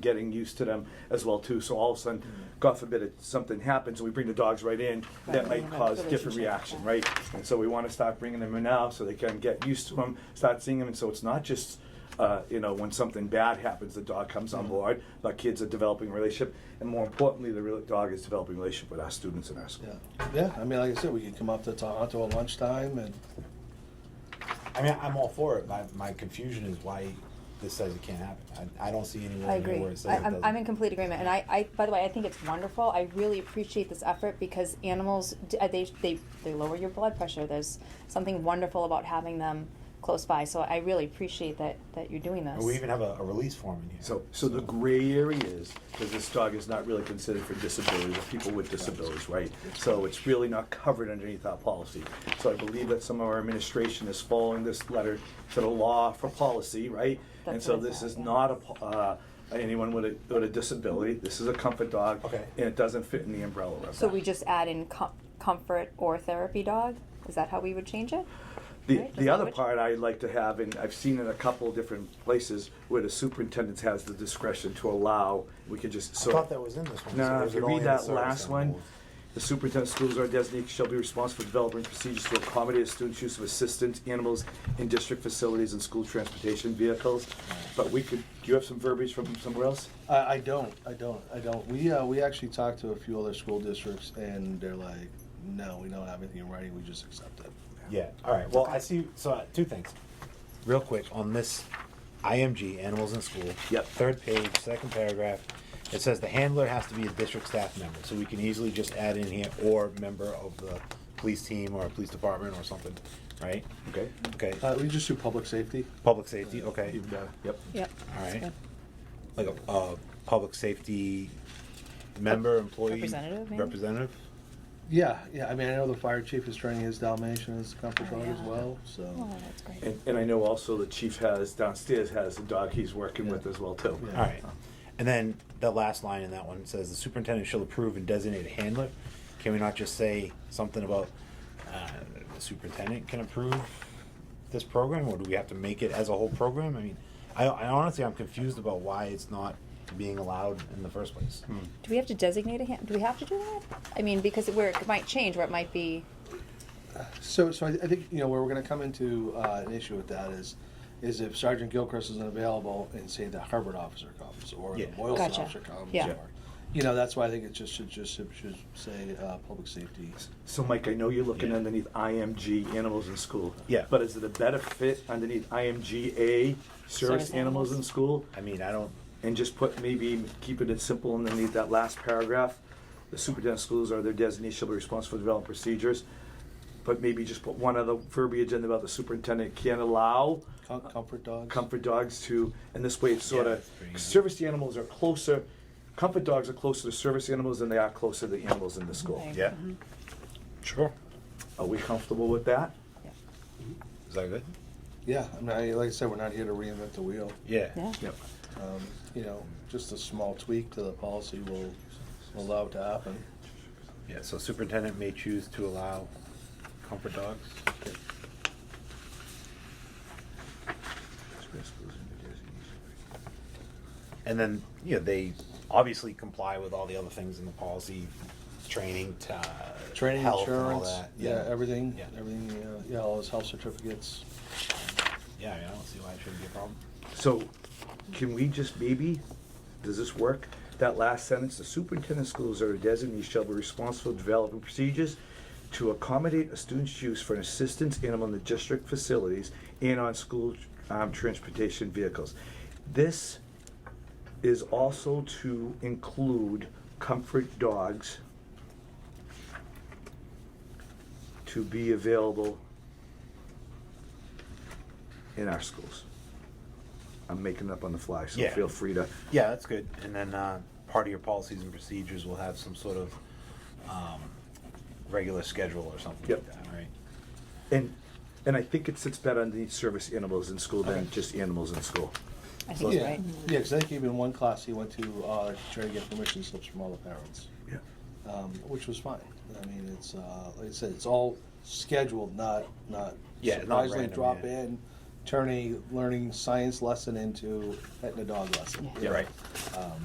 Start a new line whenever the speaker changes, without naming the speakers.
getting used to them as well too. So all of a sudden, God forbid, if something happens and we bring the dogs right in, that
Mm-hmm. Right,
might
right,
cause
right.
different reaction, right? And so we want to start bringing them in now so they can get used to them, start seeing them, and so it's not just. Uh, you know, when something bad happens, the dog comes
Mm-hmm.
on board. Our kids are developing a relationship, and more importantly, the real dog is developing a relationship with our students in our school.
Yeah, yeah. I mean, like I said, we could come up to Tohoto at lunchtime, and
I mean, I'm all for it. My, my confusion is why this says it can't happen. I, I don't see anywhere
I
in here
agree.
where it says
I,
it
I'm,
doesn't.
I'm in complete agreement. And I, I, by the way, I think it's wonderful. I really appreciate this effort because animals, d- uh, they, they, they lower your blood pressure. There's something wonderful about having them close by. So I really appreciate that, that you're doing this.
And we even have a, a release form in here.
So, so the gray area is, because this dog is not really considered for disabilities, or people with disabilities, right? So it's really not covered underneath our policy. So I believe that some of our administration is following this letter to the law for policy, right? And
That's
so
what I
this
thought,
is
yeah.
not a, po- uh, anyone with a, with a disability, this is a comfort dog.
Okay.
And it doesn't fit in the umbrella of that.
so we just add in com- comfort or therapy dog? Is that how we would change it?
The,
Right,
the
just
other
language.
part I'd like to have, and I've seen in a couple of different places where the superintendent has the discretion to allow, we could just
I
sort of.
thought that was in this one. so
Now,
it
if
was
you
only
read
in the
that
service
last one,
animals.
the superintendent of schools or designated shall be responsible for developing procedures to accommodate students' use of assistance animals in district facilities and school transportation vehicles. But we could, do you have some verbiage from somewhere else?
I, I don't, I don't, I don't. We uh, we actually talked to a few other school districts, and they're like, no, we don't have anything in writing. We just accept it.
Yeah. All right. Well, I see. So uh, two things, real quick on this IMG animals in school.
Yep.
Third page, second paragraph. It says the handler has to be a district staff member, so we can easily just add in here or member of the police team or police department or something, right?
Okay.
Okay.
Uh, we just do public safety.
Public safety. Okay.
Even better. Yep.
Yep.
All right. Like a uh, public safety member, employee,
representative, maybe?
representative.
Yeah, yeah. I mean, I know the fire chief is training his Dalmatian as a comfort
Oh,
dog as
yeah.
well. So
Oh, that's great.
Eh.
And, and I know also the chief has, downstairs has a dog he's working with
Yeah.
as well too.
Yeah.
All right. And then the last line in that one says the superintendent shall approve and designate a handler. Can we not just say something about uh, the superintendent can approve this program, or do we have to make it as a whole program? I mean, I, I honestly I'm confused about why it's not being allowed in the first place.
Do we have to designate a hand? Do we have to do that? I mean, because where it might change, where it might be.
So, so I, I think, you know, where we're gonna come into, uh, an issue with that is, is if Sergeant Gilchrist isn't available and say the Harvard officer comes, or the
Yeah.
Boylston
Gotcha.
officer comes,
Yeah.
or, you know, that's why I think it just should, just should, should say, uh, public safety.
So Mike, I know you're looking
Yeah.
underneath IMG, animals in school.
Yeah.
But is it a better fit underneath IMGA, service
Service
animals
animals.
in school?
I mean, I don't.
and just put maybe keeping it simple underneath that last paragraph. The superintendent of schools are their designee shall be responsible for developing procedures. But maybe just put one other verbiage in about the superintendent can't allow
Com- Comfort dogs.
comfort dogs to, and this way it's sort
Yeah,
of,
that's pretty easy.
service animals are closer, comfort dogs are closer to service animals than they are closer to the animals in the school.
Okay.
Yeah. Sure.
Are we comfortable with that?
Yeah.
Is that good?
Yeah, I mean, I, like I said, we're not here to reinvent the wheel.
Yeah.
Yeah.
Yep.
Um, you know, just a small tweak to the policy will, will allow it to happen.
Yeah. So superintendent may choose to allow comfort dogs. And then, you know, they obviously comply with all the other things in the policy, training, t- uh,
Training,
health and all
insurance,
that.
yeah, everything,
Yeah.
everything, uh, yeah, all those health certificates.
Yeah, I mean, I don't see why it shouldn't be a problem.
So, can we just maybe, does this work? That last sentence, the superintendent of schools or designee shall be responsible for developing procedures to accommodate a student's use for an assistance animal in the district facilities and on school um, transportation vehicles. This is also to include comfort dogs to be available in our schools. I'm making up on the fly, so
Yeah.
feel free to.
Yeah, that's good. And then uh, part of your policies and procedures will have some sort of um, regular schedule or something
Yep.
like that, right?
And and I think it sits better underneath service animals in school than
Okay.
just animals in school.
I think you're
Yeah,
right.
yeah, because I think even one class he went to, uh, try to get permission slips from all the parents,
Yeah.
um, which was fine. I mean, it's, uh, like I said, it's all scheduled, not, not
Yeah, not
surprisingly
random,
drop
yeah.
in, turn a learning science lesson into petting a dog Um, lesson.
Yeah.
Yeah, right.